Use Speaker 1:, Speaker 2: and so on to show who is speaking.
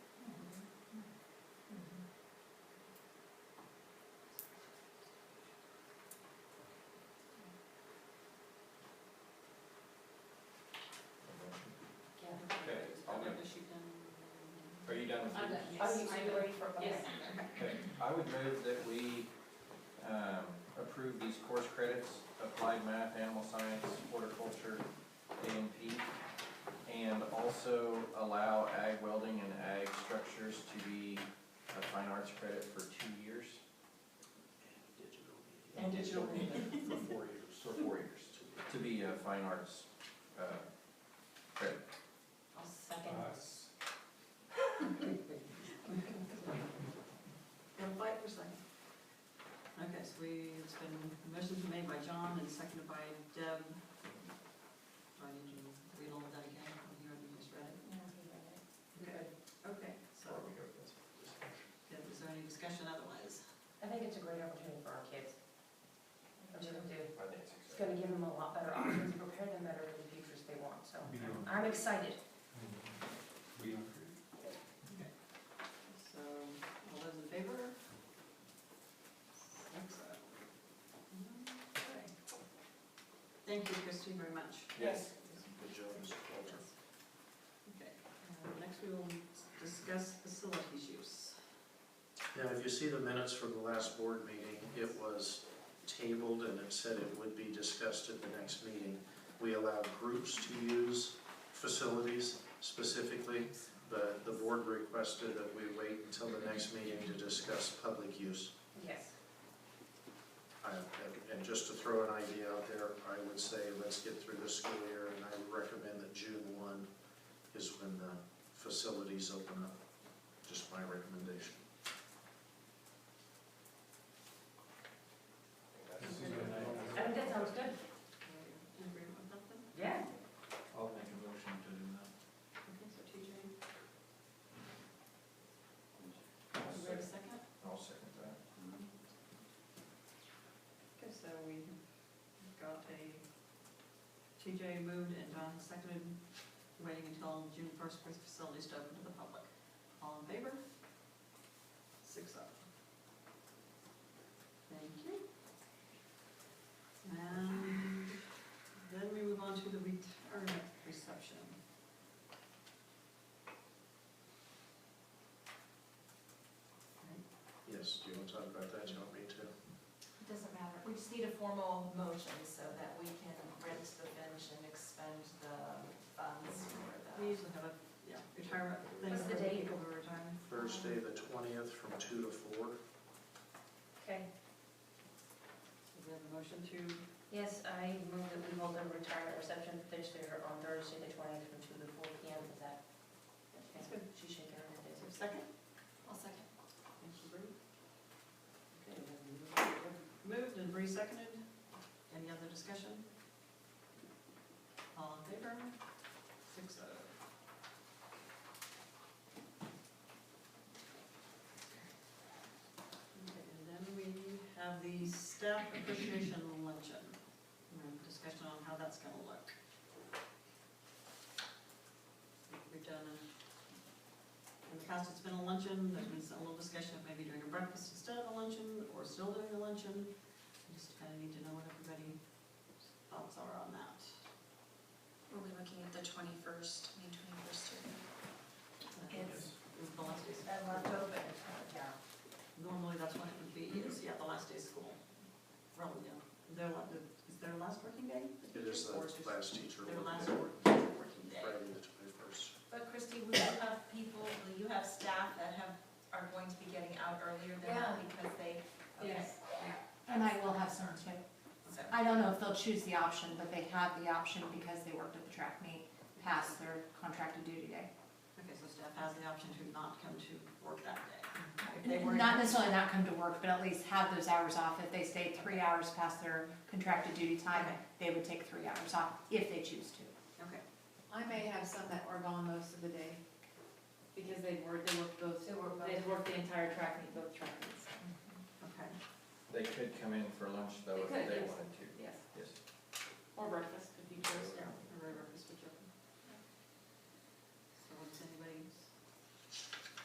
Speaker 1: you done with
Speaker 2: I'm
Speaker 1: yours?
Speaker 2: done,
Speaker 3: Are
Speaker 2: yes.
Speaker 3: you still ready for us?
Speaker 2: Yes.
Speaker 1: Okay, I would move that we um, approve these course credits, applied math, animal science, horticulture, A and P, and also allow ag welding and ag structures to be a fine arts credit for two years,
Speaker 3: And digital media.
Speaker 4: For four years,
Speaker 1: or four years, to be a fine arts uh, credit.
Speaker 3: I'll second.
Speaker 5: Uh,
Speaker 4: Us.
Speaker 5: Don't fight for a second. Okay, so we, it's been, the motion's been made by John and seconded by Deb. Do I need to read all of that again? You already just read it. Okay. Okay, so,
Speaker 1: Where we go with this?
Speaker 5: good. is there any discussion otherwise?
Speaker 3: I think it's a great opportunity for our kids. What you can do.
Speaker 1: I think it's
Speaker 3: It's
Speaker 1: exciting.
Speaker 3: gonna give them a lot better options, prepare them better for the futures they want, so
Speaker 4: You know,
Speaker 3: I'm excited.
Speaker 4: we,
Speaker 5: So, all those in favor? Six oh. Okay.
Speaker 3: Thank you, Christine, very much.
Speaker 1: Yes.
Speaker 4: good job, Mr. Coulter.
Speaker 5: Okay, uh, next we will discuss facilities use.
Speaker 6: Now, if you see the minutes from the last board meeting, it was tabled and it said it would be discussed at the next meeting. We allow groups to use facilities specifically, but the board requested that we wait until the next meeting to discuss public use.
Speaker 3: Yes.
Speaker 6: I- and- And just to throw an idea out there, I would say let's get through this school year and I would recommend that June one is when the facilities open up. Just my recommendation.
Speaker 4: This is a-
Speaker 3: I think that sounds good.
Speaker 5: In agreement with that then?
Speaker 3: Yeah.
Speaker 1: I'll make a motion to do that.
Speaker 5: Okay, so TJ, you ready a second?
Speaker 1: I'll second that.
Speaker 5: Okay, so we got a, TJ moved and Don seconded, waiting until June first for facilities to open to the public. All in favor? Six up. Thank you. And then we move on to the retirement reception.
Speaker 6: Yes, do you want to talk about that? Do you want me to?
Speaker 7: It doesn't matter, we just need a formal motion so that we can rent the bench and expend the funds for
Speaker 5: We
Speaker 7: the.
Speaker 5: usually have a, yeah, retirement thing
Speaker 3: What's
Speaker 5: for
Speaker 3: the
Speaker 5: the
Speaker 3: date?
Speaker 5: people who retire.
Speaker 6: Thursday, the twentieth, from two to four.
Speaker 3: Okay.
Speaker 5: Is there a motion to
Speaker 3: Yes, I move that we hold a retirement reception this year on Thursday, the twentieth, from two to four P M. Is that?
Speaker 5: That's good.
Speaker 3: She's shaking her head.
Speaker 5: Is there a second?
Speaker 7: I'll second.
Speaker 5: Thank you, Bree. Okay, then moved and Bree seconded. Any other discussion? All in favor? Six oh. Okay, and then we have the staff appreciation luncheon. We have Discussion on how that's gonna look. We've done a in the past, it's been a luncheon, there's been a little discussion of maybe doing a breakfast instead of a luncheon, or still doing a luncheon. We Just kind of need to know what everybody's thoughts are on that.
Speaker 7: Were we looking at the twenty-first, May twenty-first?
Speaker 3: It's-
Speaker 5: Is the last day,
Speaker 7: And left open.
Speaker 3: Yeah.
Speaker 5: normally that's when it would be, is, yeah, the last day of school. Probably, yeah. Their, la- is their last working day?
Speaker 6: It is the
Speaker 5: Or just
Speaker 6: last teacher
Speaker 5: Their
Speaker 6: work
Speaker 5: last
Speaker 6: day,
Speaker 5: work- working day.
Speaker 6: Friday the twenty-first.
Speaker 7: But Christy, will you have people, will you have staff that have, are going to be getting out earlier than that because they? okay.
Speaker 2: Yes, and I will have some too.
Speaker 7: So,
Speaker 2: I don't know if they'll choose the option, but they had the option because they worked at the track meet past their contracted duty day.
Speaker 5: Okay, so staff has the option to not come to work that day.
Speaker 8: Mhm.
Speaker 5: If they were-
Speaker 2: Not necessarily not come to work, but at least have those hours off. If they stayed three hours past their contracted duty time,
Speaker 5: Okay.
Speaker 2: they would take three hours off if they choose to.
Speaker 5: Okay.
Speaker 8: I may have some that were gone most of the day, because they were, they worked both,
Speaker 7: They worked both.
Speaker 8: they worked the entire track meet, both track meets,
Speaker 5: Okay.
Speaker 1: They could come in for lunch though if
Speaker 8: They could,
Speaker 1: they
Speaker 8: yes.
Speaker 1: wanted to.
Speaker 8: yes,
Speaker 1: Yes.
Speaker 8: or breakfast, if you chose.
Speaker 1: Yeah.